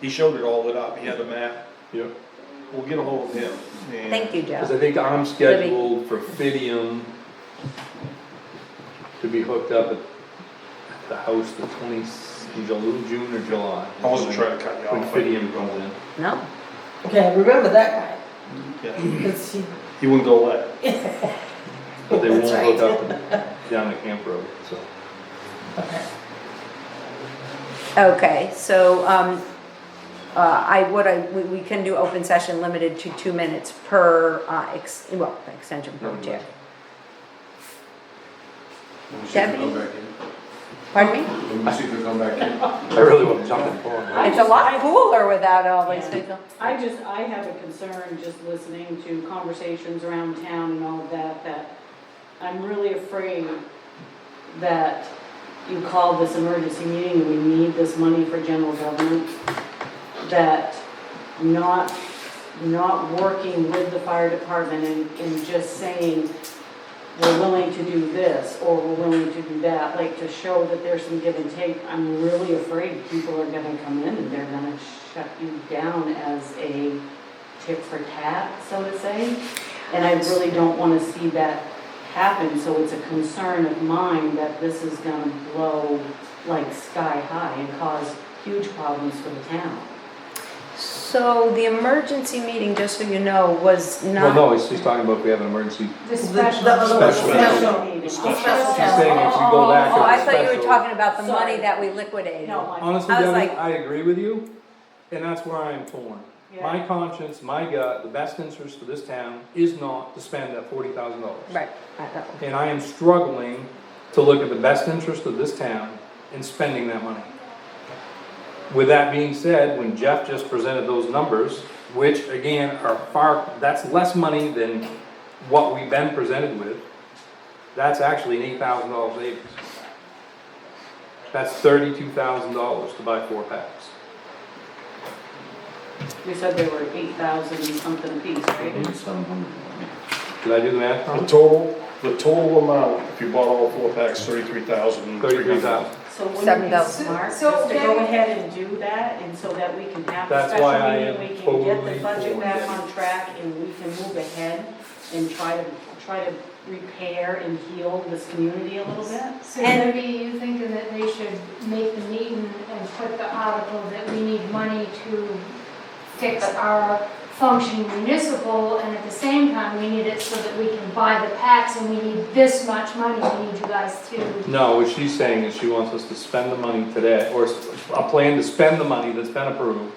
he showed it all lit up, he had a map, Yep. we'll get ahold of him. and- Thank you, Cause Joe. I think I'm scheduled for Fidium to be hooked up at the house the twenty, June or July. I wasn't trying to cut you When off. Fidium comes in. No, Okay, I remember that guy, Yeah, 'cause he, He wouldn't go away. But they won't That's right. hook up down the camp road, so. okay, so, um, uh, I, what I, we, we can do open session limited to two minutes per, uh, ex, well, extension per chair. Let me see if Deputy? it'll come back in. Pardon me? Let me see if it'll come back in. I really wanna jump in for it. It's a lot cooler without all these Yeah. people. I just, I have a concern just listening to conversations around town and all of that, that I'm really afraid that you called this emergency meeting and we need this money for general government, that not, not working with the fire department and, and just saying, we're willing to do this, or we're willing to do that, like to show that there's some give and take, I'm really afraid people are gonna come in and they're gonna shut you down as a tit for tat, so to say. And I really don't wanna see that happen, so it's a concern of mine that this is gonna blow like sky high and cause huge problems for the town. So the emergency meeting, just so you know, was Well, not, no, he's, she's talking about if we have an emergency. The special- the other one, Special. special. meeting. Special. She's saying if you go back to oh, I the thought you were special. talking about the money Sorry. that we liquidated. No, I- Honestly, I was Devin, like- I agree with you, and that's where I am torn. My Yeah. conscience, my gut, the best interest for this town is not to spend that forty thousand dollars. Right, I know. And I am struggling to look at the best interest of this town in spending that money. With that being said, when Jeff just presented those numbers, which again are far, that's less money than what we've been presented with, that's actually an eight thousand dollar savings. That's thirty-two thousand dollars to buy four packs. We said they were eight thousand something a piece, Mhm. right? Did I do the math The wrong? total, the total amount, if you bought all four packs, thirty-three thousand. Thirty-three thousand. So wouldn't Seven it be thousand. smart just So- so to go then- ahead and do that, and so that we can have a That's why I special am meeting, we can get totally the budget for back that. on track, and we can move ahead and try to, try to repair and heal this community a little bit? So maybe you thinking that they should make the meeting and put the article that we need money to fix our functioning municipal, and at the same time, we need it so that we can buy the packs, and we need this much money, we need you guys to. No, what she's saying is she wants us to spend the money today, or s- a plan to spend the money that's been approved,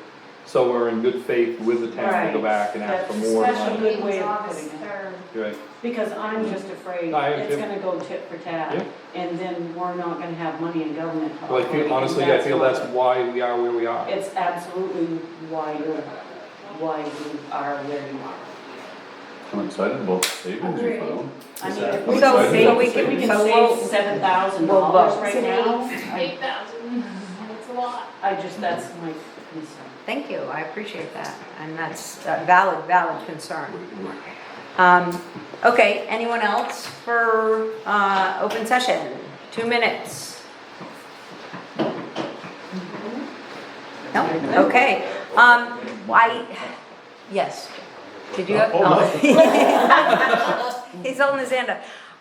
so we're in good faith with the town to go Right. back and ask for That's more special money. good way of putting August it. third. You're Right, Because I'm just afraid I am it's too. gonna go tit for Yeah. tat, and then we're not gonna have money in government. to well, I operate, feel, and honestly, I feel what- that's why we are where we are. It's absolutely why you're, why you are where you are. I'm excited about the savings you found. I mean, Is that- if we So- can so we save, can- if we can so we'll- save seven thousand we'll dollars vote. right now, Eight thousand, that's a lot. I just, that's my concern. Thank you, I appreciate that, and that's a valid, valid concern. Um, okay, anyone else for, uh, open session? Two minutes? No, okay, um, I, yes, did you have? oh. He's holding his hand up.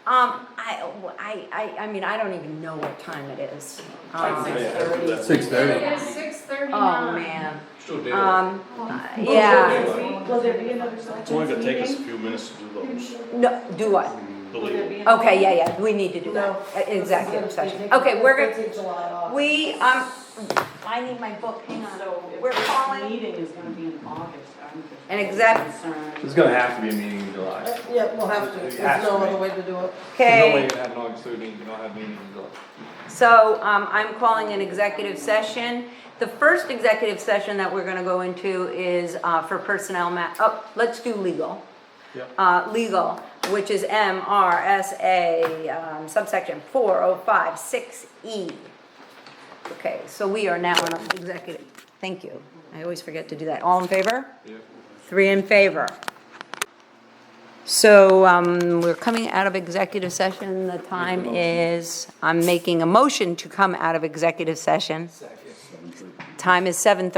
Um, I, I, I, I mean, I don't even know what time it is. Um, Like six thirty. Six It is six thirty-nine. Oh, Oh, man, Still um, yeah, Will there be another selectmen's It's only gonna take us a meeting? few minutes to do those, no, do what? Will believe there me. be another- Okay, yeah, yeah, we need to do that, Uh, executive session. Okay, we're gonna, gonna, we, um, I need my book, hang on. So if We're this calling- meeting is gonna be in August, I'm just. An exec- There's Concerned. gonna have to be a meeting in July. There's Yeah, we'll have to, there's Has to no be. other way to do it. no way Okay, you can have an August thirteenth, you don't have a meeting in July. so, um, I'm calling an executive session. The first executive session that we're gonna go into is, uh, for personnel ma, oh, let's do legal. Yep. Uh, legal, which is MRSA, um, subsection four oh five six E. Okay, so we are now in executive, thank you. I always forget to do that. All in favor? Yeah. Three in favor. So um, we're coming out of executive session. The time is, I'm making a motion to come out of executive session. Time is 7:30.